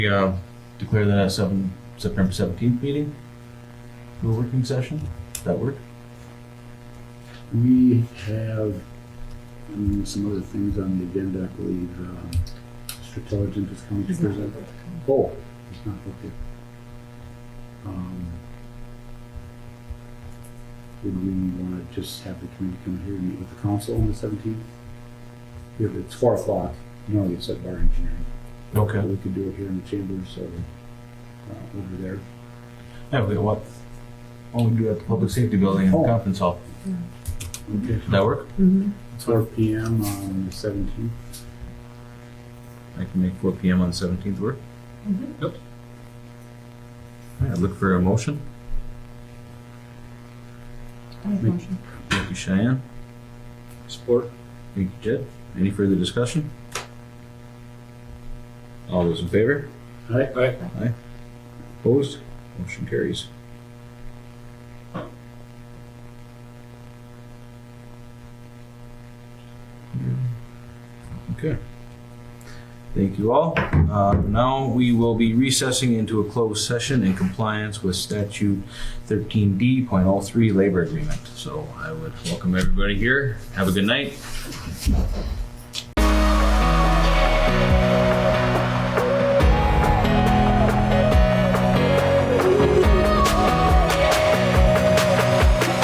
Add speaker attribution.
Speaker 1: We uh, declare that at seven, September seventeenth meeting for a working session. Does that work?
Speaker 2: We have um, some other things on the agenda, I believe. Um, Mr. Intelligent is coming to
Speaker 3: He's not
Speaker 2: present. Oh, it's not, okay. Um, Would we want to just have the committee come here and meet with the council on the seventeenth? If it's four o'clock, normally it's at bar engineering, but
Speaker 1: Okay.
Speaker 2: we could do it here in the chambers or uh, over there.
Speaker 1: Yeah, we what? Oh, we do it at the public safety building in the
Speaker 2: Oh.
Speaker 1: conference hall.
Speaker 2: Okay.
Speaker 1: Does that work?
Speaker 3: Mhm.
Speaker 2: Four P M on the seventeenth.
Speaker 1: I can make four P M on seventeenth work.
Speaker 3: Mhm.
Speaker 1: Yep. All right, look for a motion.
Speaker 3: I have a motion.
Speaker 1: Thank you, Cheyenne. Support. Thank you, Jed. Any further discussion? All those in favor?
Speaker 2: Aye. Aye.
Speaker 1: Opposed? Motion carries. Hmm. Okay. Thank you all. Uh, Now we will be recessing into a closed session in compliance with statute 13D.03 labor agreement. So I would welcome everybody here. Have a good night.